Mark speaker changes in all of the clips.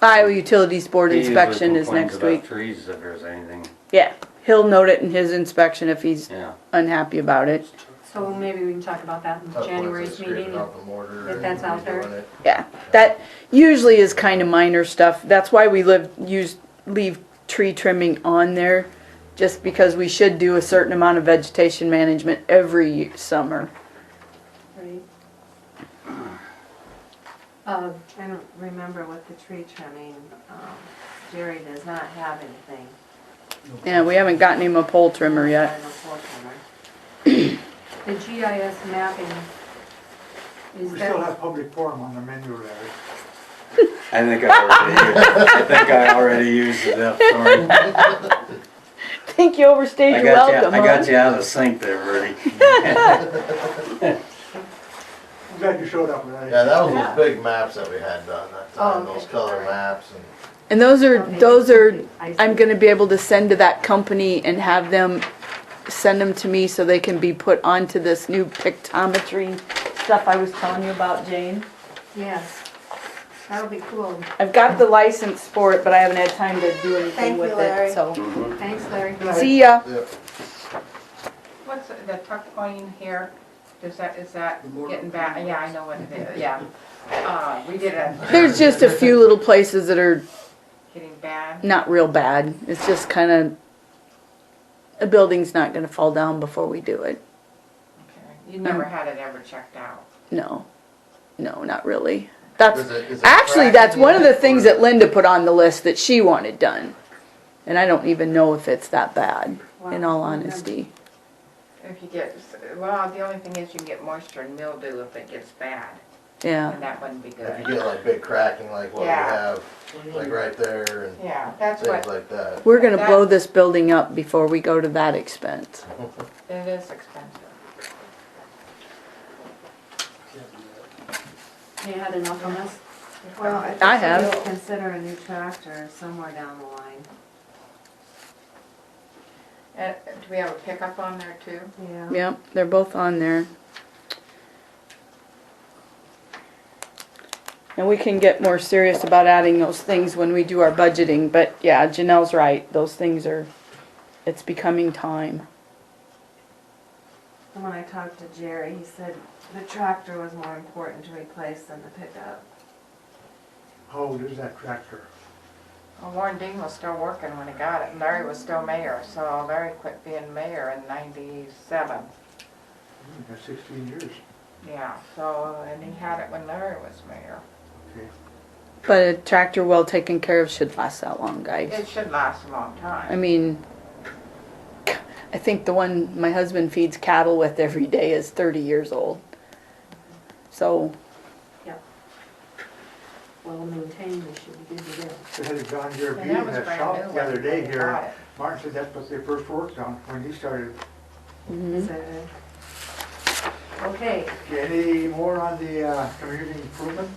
Speaker 1: Iowa Utilities Board
Speaker 2: He usually
Speaker 1: inspection is
Speaker 2: complains
Speaker 1: next
Speaker 2: about
Speaker 1: week.
Speaker 2: Trees if there's anything,
Speaker 1: Yeah, he'll note it in his inspection if he's
Speaker 2: yeah.
Speaker 1: unhappy about it.
Speaker 3: So maybe we can talk about that in
Speaker 4: That's why
Speaker 3: January's
Speaker 4: it's scraping
Speaker 3: meeting.
Speaker 4: out the mortar
Speaker 3: if that's
Speaker 4: and
Speaker 3: out there.
Speaker 4: redoing it.
Speaker 1: Yeah, that usually is kind of minor stuff. That's why we live, use, leave tree trimming on there, just because we should do a certain amount of vegetation management every summer.
Speaker 3: right? Uh,
Speaker 5: I don't remember what the tree trimming, um, Jerry does not have anything.
Speaker 1: Yeah, we haven't gotten him a pole trimmer yet.
Speaker 5: on the pole trimmer.
Speaker 3: the GIS mapping, is
Speaker 6: We still
Speaker 3: that,
Speaker 6: have public forum on the menu, Larry.
Speaker 2: I think I already, I think I already used it up, sorry.
Speaker 1: Think you overstayed
Speaker 2: I
Speaker 1: your
Speaker 2: got you,
Speaker 1: welcome,
Speaker 2: I got
Speaker 1: huh?
Speaker 2: you out of sync there, Bertie.
Speaker 6: I'm glad you showed up, Larry.
Speaker 4: Yeah, that was those big maps that we had done that time,
Speaker 3: Oh,
Speaker 4: those
Speaker 3: okay.
Speaker 4: color maps and
Speaker 1: And those are,
Speaker 3: Okay.
Speaker 1: those are,
Speaker 3: I
Speaker 1: I'm gonna be able to send to that company and have them send them to me so they can be put onto this new pictometry stuff I was telling you about, Jane.
Speaker 3: yes, that would be cool.
Speaker 1: I've got the license for it, but I haven't had time to do anything
Speaker 5: Thank
Speaker 1: with
Speaker 5: you,
Speaker 1: it,
Speaker 5: Larry.
Speaker 1: so.
Speaker 3: Thanks, Larry.
Speaker 1: See ya.
Speaker 4: the
Speaker 7: What's the tuck point here? Does that, is that getting back? Yeah, I know what it is, yeah. Uh, we did a,
Speaker 1: There's just a few little places that are
Speaker 7: getting bad.
Speaker 1: not real bad. It's just kind of, a building's not gonna fall down before we do it.
Speaker 7: Okay. You never had it ever checked out.
Speaker 1: No, no, not really. That's,
Speaker 4: Is it- is it
Speaker 1: actually,
Speaker 4: cracking
Speaker 1: that's one of the
Speaker 4: yet,
Speaker 1: things
Speaker 4: or-
Speaker 1: that Linda put on the list that she wanted done. And I don't even know if it's that bad, in all honesty.
Speaker 7: If you get, well, the only thing is you can get moisture and mildew if it gets bad,
Speaker 1: Yeah,
Speaker 7: and that wouldn't be
Speaker 4: if you
Speaker 7: good.
Speaker 4: get like big cracking like what we
Speaker 7: Yeah.
Speaker 4: have, like right there and
Speaker 7: Yeah, that's
Speaker 4: things
Speaker 7: what,
Speaker 4: like that.
Speaker 1: we're gonna blow this building up before we go to that expense.
Speaker 7: it is expensive.
Speaker 3: You had enough on us?
Speaker 5: Well, I
Speaker 1: I
Speaker 5: think we
Speaker 1: have.
Speaker 5: should consider a new tractor somewhere down the line.
Speaker 7: And Uh, do we have a pickup on there too?
Speaker 5: Yeah.
Speaker 1: Yep, they're both on there. And we can get more serious about adding those things when we do our budgeting, but yeah, Janelle's right, those things are, it's becoming time.
Speaker 5: And When I talked to Jerry, he said the tractor was more important to replace than the pickup.
Speaker 6: How old is that tractor?
Speaker 7: Well, Warren Dean was still working when he got it, and Larry was still mayor, so Larry quit being mayor in ninety-seven.
Speaker 6: Hmm, That's sixteen years.
Speaker 7: Yeah, so, and he had it when Larry was mayor.
Speaker 6: Okay.
Speaker 1: But a tractor well taken care of should last that long,
Speaker 7: It
Speaker 1: guys.
Speaker 7: should last a long
Speaker 1: I
Speaker 7: time.
Speaker 1: mean, I think the one my husband feeds cattle with every day is thirty years old. So,
Speaker 3: Well maintained, we should be good to go.
Speaker 6: They had a John Deere
Speaker 7: And
Speaker 6: Beauty
Speaker 7: that was
Speaker 6: that
Speaker 7: brand new.
Speaker 6: shop the other
Speaker 7: when
Speaker 6: day
Speaker 7: we
Speaker 6: here.
Speaker 7: got it.
Speaker 6: Martin said that's what they first worked on when he started.
Speaker 1: mhm.
Speaker 5: So
Speaker 3: Okay,
Speaker 6: Okay, Any more on the uh, community improvement?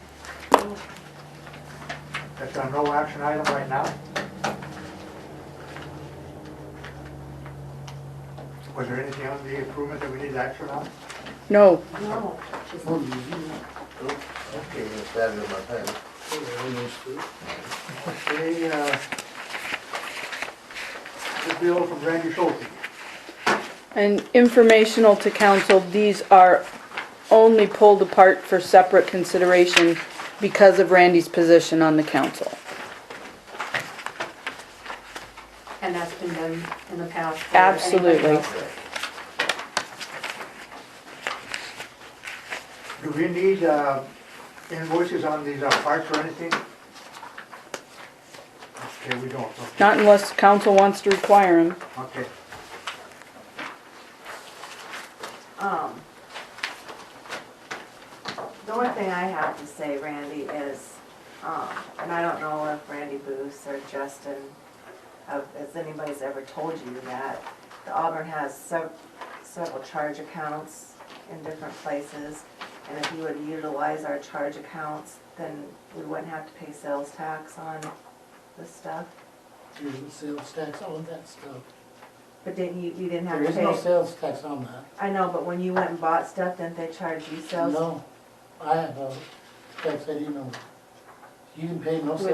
Speaker 6: That's a no action item right now? Was there anything on the improvement that we need action on?
Speaker 1: no,
Speaker 3: no,
Speaker 4: Okay, you can stab it in my pen.
Speaker 6: Okay, uh, the bill from Randy Schulte.
Speaker 1: And informational to council, these are only pulled apart for separate consideration because of Randy's position on the council.
Speaker 3: and that's been done in the past. for anybody
Speaker 1: Absolutely.
Speaker 3: else.
Speaker 6: Do we need uh, invoices on these uh, parts or anything? Okay, we don't, okay.
Speaker 1: Not unless council wants to require them.
Speaker 6: okay.
Speaker 5: Um, The one thing I have to say, Randy, is, um, and I don't know if Randy Booth or Justin, uh, if anybody's ever told you that, the Auburn has sev- several charge accounts in different places, and if you would utilize our charge accounts, then we wouldn't have to pay sales tax on this stuff.
Speaker 8: There's no sales tax on that stuff.
Speaker 5: But didn't you, you didn't have
Speaker 8: There
Speaker 5: to
Speaker 8: is no
Speaker 5: pay?
Speaker 8: sales tax on that.
Speaker 5: I know, but when you went and bought stuff, didn't they charge you sales?
Speaker 8: No, I have a tax ID number. You can pay no sales